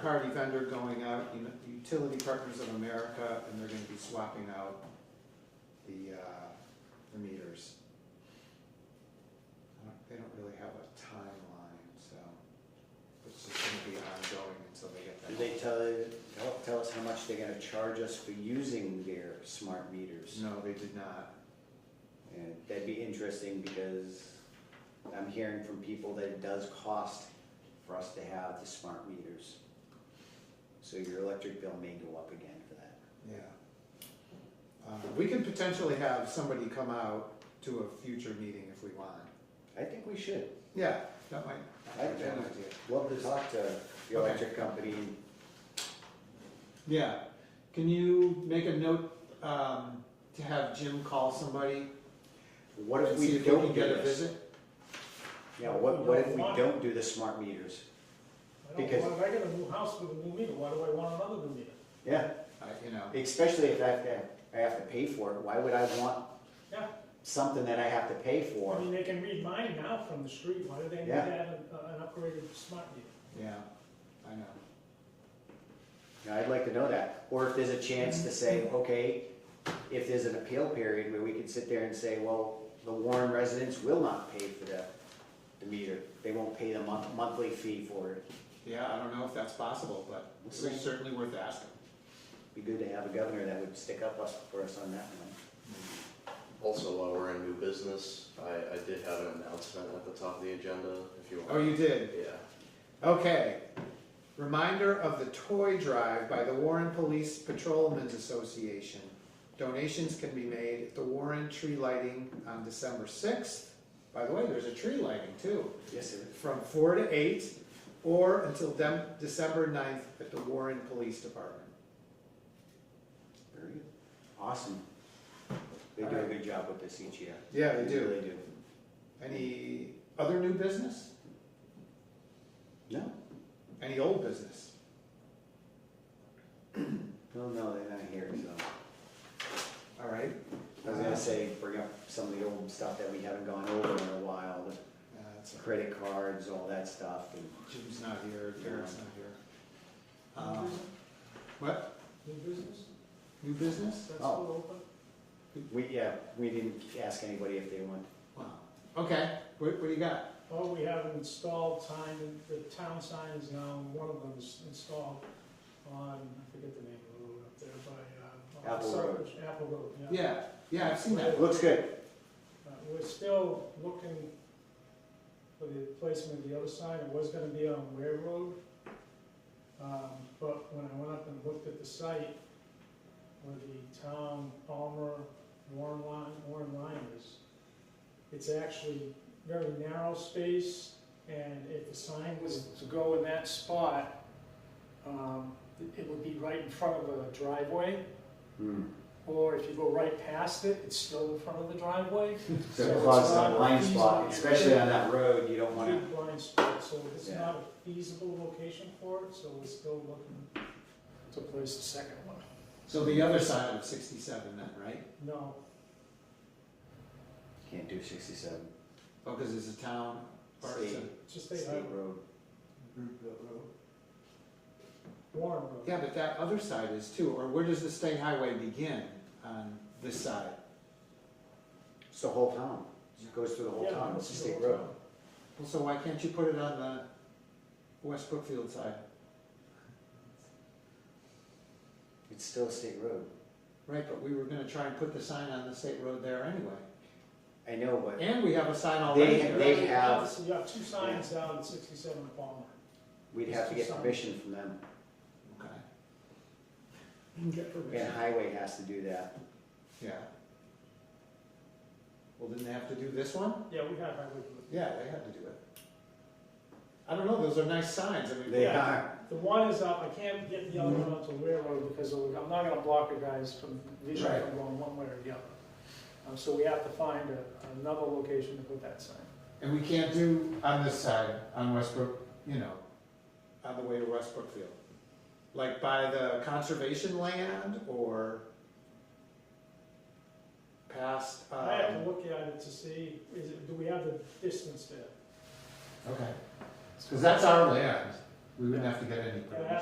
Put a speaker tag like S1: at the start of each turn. S1: Third-party vendor going out, you know, Utility Partners of America, and they're gonna be swapping out the, uh, the meters. I don't- They don't really have a timeline, so it's just gonna be ongoing until they get that.
S2: Do they tell, tell- tell us how much they're gonna charge us for using their smart meters?
S1: No, they did not.
S2: And that'd be interesting because I'm hearing from people that it does cost for us to have the smart meters. So your electric bill may go up again for that.
S1: Yeah. Uh, we can potentially have somebody come out to a future meeting if we want.
S2: I think we should.
S1: Yeah, that might,
S2: I
S1: that's an
S2: think-
S1: idea.
S2: Love to talk to
S1: Okay.
S2: the electric company.
S1: Yeah, can you make a note, um, to have Jim call somebody
S2: What if
S1: and see
S2: we
S1: if we
S2: don't
S1: can
S2: do
S1: get a
S2: this?
S1: visit?
S2: Yeah, what, what if we
S3: Why?
S2: don't do the smart meters?
S3: I don't
S2: Because-
S3: want, I got a new house with a new meter, why do I want another new meter?
S2: Yeah,
S1: I- You know,
S2: especially if I have to, I have to pay for it, why would I want
S3: Yeah, Mm-hmm.
S2: something that I have to pay
S3: I
S2: for?
S3: mean, they can read mine now from the street, why do they need to
S2: Yeah.
S3: have an an upgraded smart meter?
S1: yeah, I know.
S2: Now, I'd like to know that, or if there's a chance to say, okay, if there's an appeal period where we can sit there and say, well, the Warren residents will not pay for the, the meter. They won't pay the month, monthly fee for it.
S1: Yeah, I don't know if that's possible, but
S2: We'll
S1: it's
S2: see.
S1: certainly worth asking.
S2: Be good to have a governor that would stick up us, for us on that one.
S4: Also, while we're in new business, I, I did have an announcement at the top of the agenda, if you want.
S1: Oh, you did?
S4: Yeah.
S1: Okay. Reminder of the toy drive by the Warren Police Patrolmen's Association. Donations can be made at the Warren Tree Lighting on December sixth. By the way, there's a tree lighting too.
S2: Yes, sir.
S1: from four to eight, or until dem- December 9th at the Warren Police Department.
S2: Very good. Awesome. They do a good job with this each year.
S1: Yeah, they do.
S2: really do.
S1: Any other new business?
S2: No,
S1: Any old business?
S2: no, no, they're not here, so.
S1: All right. Uh,
S2: I was gonna say, bring up some of the old stuff that we haven't gone over in a while, the
S1: Uh, that's all right.
S2: credit cards, all that stuff, and
S1: Jim's not here, Derek's not here. Um, What,
S3: New business,
S1: new business?
S3: that's
S2: Oh.
S3: still open?
S2: we, yeah, we didn't ask anybody if they want.
S1: Wow. Okay, what, what do you got?
S3: Well, we have an installed sign, the town sign is now, one of them is installed on, I forget the name of the road up there by, uh.
S2: Apple Road.
S3: Suckers- Apple Road, yeah.
S1: Yeah, yeah, I've seen that.
S2: It looks good,
S3: Uh, We're still looking for the placement of the other sign, it was gonna be on Ware Road. Um, but when I went up and looked at the site where the town Palmer Warren line, Warren line is, it's actually very narrow space, and if the sign was to go in that spot, um, it would be right in front of a driveway,
S2: Hmm.
S3: or if you go right past it, it's still in front of the driveway.
S2: so
S3: So
S2: it
S3: it's
S2: causes a
S3: not
S2: blind
S3: feasible.
S2: spot, especially on that road, you don't wanna,
S3: Big blind spot, so it's
S2: Yeah.
S3: not a feasible location for it, so we're still looking to place the second one.
S1: So the other side of sixty-seven then, right?
S3: No,
S2: can't do sixty-seven,
S1: Oh, cause it's a town, or it's a
S3: just
S2: state
S3: they have
S2: road.
S3: Warren Road.
S1: Yeah, but that other side is too, or where does the state highway begin on this side?
S2: It's the whole town, it goes through the whole
S3: Yeah,
S2: town, it's a
S3: it's
S2: state
S3: the whole
S2: road.
S3: town.
S1: Well, so why can't you put it on the West Brookfield side?
S2: It's still a state road.
S1: Right, but we were gonna try and put the sign on the state road there anyway.
S2: I know, but
S1: And we have a sign already
S2: They-
S1: there.
S2: they-
S3: Right
S2: have-
S3: now, so You have two signs down at sixty-seven Palmer.
S2: we'd have to get permission from them,
S1: Okay. You can get
S2: and
S1: permission.
S2: highway has to do that.
S1: Yeah. Well, didn't they have to do this one?
S3: Yeah, we have highway. Blue.
S1: Yeah, they had to do it. I don't know, those are nice signs, I mean.
S2: They
S3: Yeah.
S2: are,
S3: The one is up, I can't get the other one up to Ware Road because of- I'm not gonna block the guys from, these are
S2: Right.
S3: going one way or the other. Um, so we have to find a- another location to put that sign.
S1: And we can't do on this side, on Westbrook, you know, on the way to West Brookfield. Like by the conservation land or past,
S3: I have to
S1: um,
S3: look at it to see, is it, do we have the distance there?
S1: okay, cause that's our land. We wouldn't have to get any
S3: It
S1: permission.
S3: has